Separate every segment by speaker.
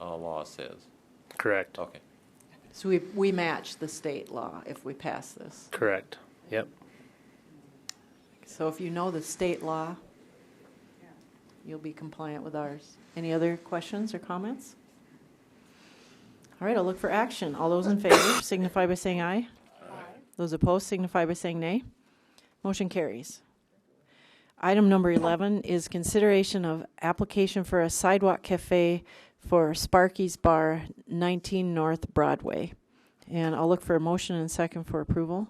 Speaker 1: uh, law says.
Speaker 2: Correct.
Speaker 1: Okay.
Speaker 3: So we, we match the state law if we pass this.
Speaker 2: Correct. Yep.
Speaker 3: So if you know the state law, you'll be compliant with ours. Any other questions or comments? All right, I'll look for action. All those in favor signify by saying aye. Those opposed signify by saying nay. Motion carries. Item number 11 is consideration of application for a sidewalk cafe for Sparky's Bar, 19 North Broadway. And I'll look for a motion and second for approval.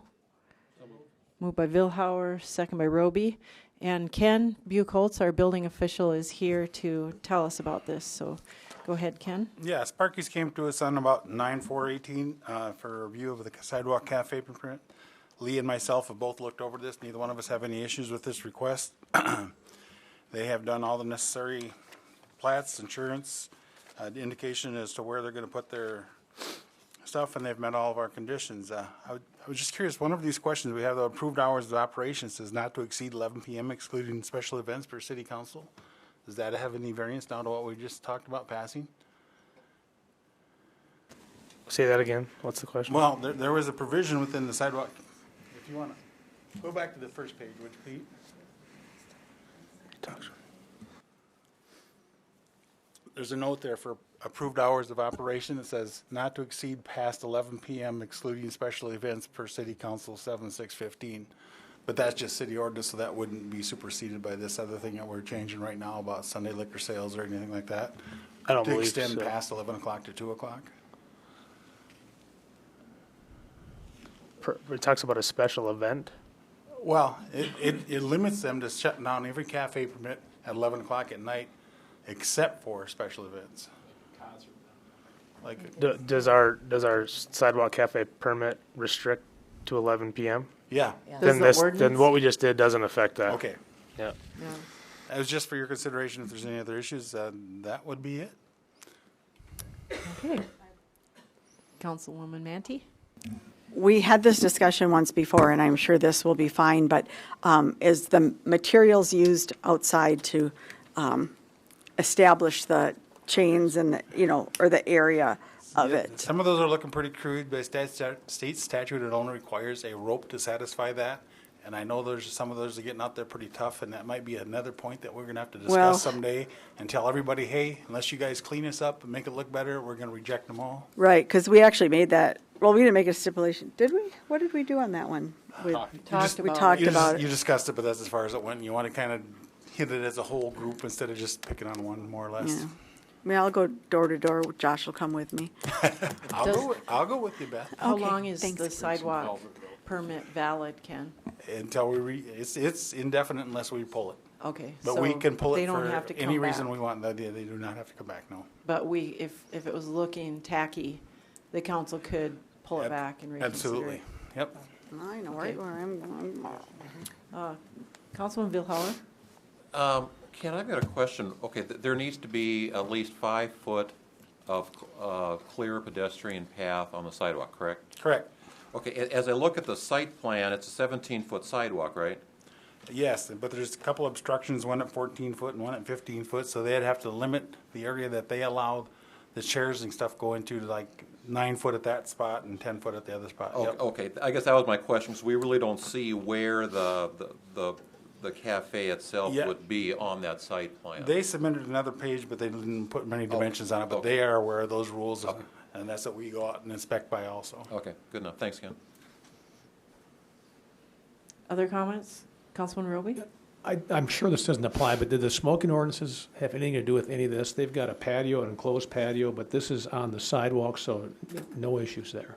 Speaker 3: Moved by Vilhauer, second by Roby. And Ken Buchholz, our building official, is here to tell us about this. So go ahead, Ken.
Speaker 4: Yeah, Sparky's came to us on about nine four eighteen, uh, for a review of the sidewalk cafe permit. Lee and myself have both looked over this. Neither one of us have any issues with this request. They have done all the necessary plats, insurance, uh, indication as to where they're gonna put their stuff, and they've met all of our conditions. Uh, I would- I was just curious, one of these questions, we have the approved hours of operations is not to exceed eleven PM excluding special events per city council. Does that have any variance now to what we just talked about passing?
Speaker 2: Say that again. What's the question?
Speaker 4: Well, there, there was a provision within the sidewalk, if you want to, go back to the first page, would you, Pete? There's a note there for approved hours of operation. It says not to exceed past eleven PM excluding special events per city council seven six fifteen. But that's just city ordinance, so that wouldn't be superseded by this other thing that we're changing right now about Sunday liquor sales or anything like that.
Speaker 2: I don't believe
Speaker 4: To extend
Speaker 2: so.
Speaker 4: past eleven o'clock to two o'clock.
Speaker 2: Per- It talks about a special event.
Speaker 4: Well, it, it, it limits them to shutting down every cafe permit at eleven o'clock at night, except for special events. Like,
Speaker 2: D- Does our, does our sidewalk cafe permit restrict to 11 PM?
Speaker 4: yeah,
Speaker 3: Does
Speaker 2: Then
Speaker 3: the
Speaker 2: this- Then
Speaker 3: ordinance-
Speaker 2: what we just did doesn't affect that.
Speaker 4: okay.
Speaker 2: Yep.
Speaker 3: Yeah.
Speaker 4: That was just for your consideration. If there's any other issues, uh, that would be it.
Speaker 3: Okay. Councilwoman Manti?
Speaker 5: We had this discussion once before, and I'm sure this will be fine, but um, is the materials used outside to um, establish the chains and, the- you know, or the area of it?
Speaker 4: Some of those are looking pretty crude, but stat, stat- state statute, it only requires a rope to satisfy that. And I know there's, some of those are getting out there pretty tough, and that might be another point that we're gonna have to
Speaker 5: Well-
Speaker 4: discuss someday and tell everybody, hey, unless you guys clean us up and make it look better, we're gonna reject them all.
Speaker 5: Right, because we actually made that, well, we didn't make a stipulation, did we? What did we do on that one? We
Speaker 3: Talked
Speaker 5: We
Speaker 3: about
Speaker 5: talked
Speaker 4: You,
Speaker 5: about
Speaker 4: dis- you
Speaker 5: it.
Speaker 4: discussed it, but that's as far as it went. You want to kind of hit it as a whole group instead of just picking on one, more or less.
Speaker 5: Yeah. I mean, I'll go door to door, Josh will come with me.
Speaker 4: I'll,
Speaker 3: Does-
Speaker 4: go with, I'll go with you, Beth,
Speaker 3: How
Speaker 5: Okay,
Speaker 3: long is
Speaker 5: thanks.
Speaker 3: the sidewalk permit valid, Ken?
Speaker 4: until we re, it's, it's indefinite unless we pull it.
Speaker 3: Okay.
Speaker 4: But we
Speaker 3: so
Speaker 4: can pull
Speaker 3: they
Speaker 4: it
Speaker 3: don't
Speaker 4: for
Speaker 3: have to
Speaker 4: any
Speaker 3: come
Speaker 4: reason
Speaker 3: back.
Speaker 4: we want. No, They, they do not have to come back, no.
Speaker 3: But we, if, if it was looking tacky, the council could pull it
Speaker 4: Ab-
Speaker 3: back and reconsider.
Speaker 4: Absolutely.
Speaker 3: it.
Speaker 4: Yep.
Speaker 5: I know right
Speaker 3: Okay.
Speaker 5: where I'm going.
Speaker 3: Councilman Vilhauer?
Speaker 1: Um, Ken, I've got a question. Okay, th- there needs to be at least five foot of uh, clear pedestrian path on the sidewalk, correct?
Speaker 4: Correct.
Speaker 1: Okay, a- as I look at the site plan, it's a 17-foot sidewalk, right?
Speaker 4: Yes, but there's a couple obstructions, one at fourteen foot and one at fifteen foot, so they'd have to limit the area that they allow the chairs and stuff go into, like nine foot at that spot and ten foot at the other spot.
Speaker 1: O-
Speaker 4: Yep.
Speaker 1: Okay, I guess that was my question, because we really don't see where the, the- the, the cafe itself
Speaker 4: Yeah.
Speaker 1: would be on that site plan.
Speaker 4: They submitted another page, but they didn't put many dimensions on it, but
Speaker 1: Okay.
Speaker 4: they are aware of those rules, and that's what we go out and inspect by also.
Speaker 1: Okay, good enough. Thanks, Ken.
Speaker 3: Other comments? Councilman Roby?
Speaker 6: I, I'm sure this doesn't apply, but did the smoking ordinances have anything to do with any of this? They've got a patio, an enclosed patio, but this is on the sidewalk, so no issues there.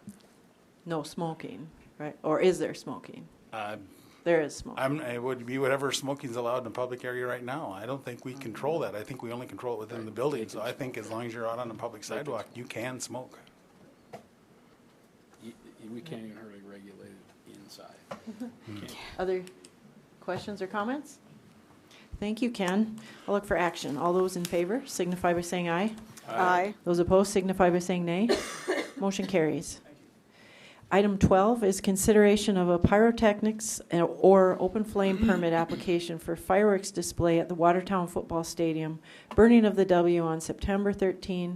Speaker 3: No smoking, right? Or is there smoking?
Speaker 4: Uh,
Speaker 3: There is smoking.
Speaker 4: I'm, it would be whatever smoking's allowed in a public area right now. I don't think we control that. I think we only control it within the building, so I think as long as you're out on a public sidewalk, you can smoke.
Speaker 7: You- you- We can't even hardly regulate it inside.
Speaker 3: Other questions or comments? Thank you, Ken. I'll look for action. All those in favor signify by saying aye.
Speaker 5: Aye.
Speaker 3: Those opposed signify by saying nay. Motion carries. Item 12 is consideration of a pyrotechnics and- or open flame permit application for fireworks display at the Watertown Football Stadium, burning of the W on September 13,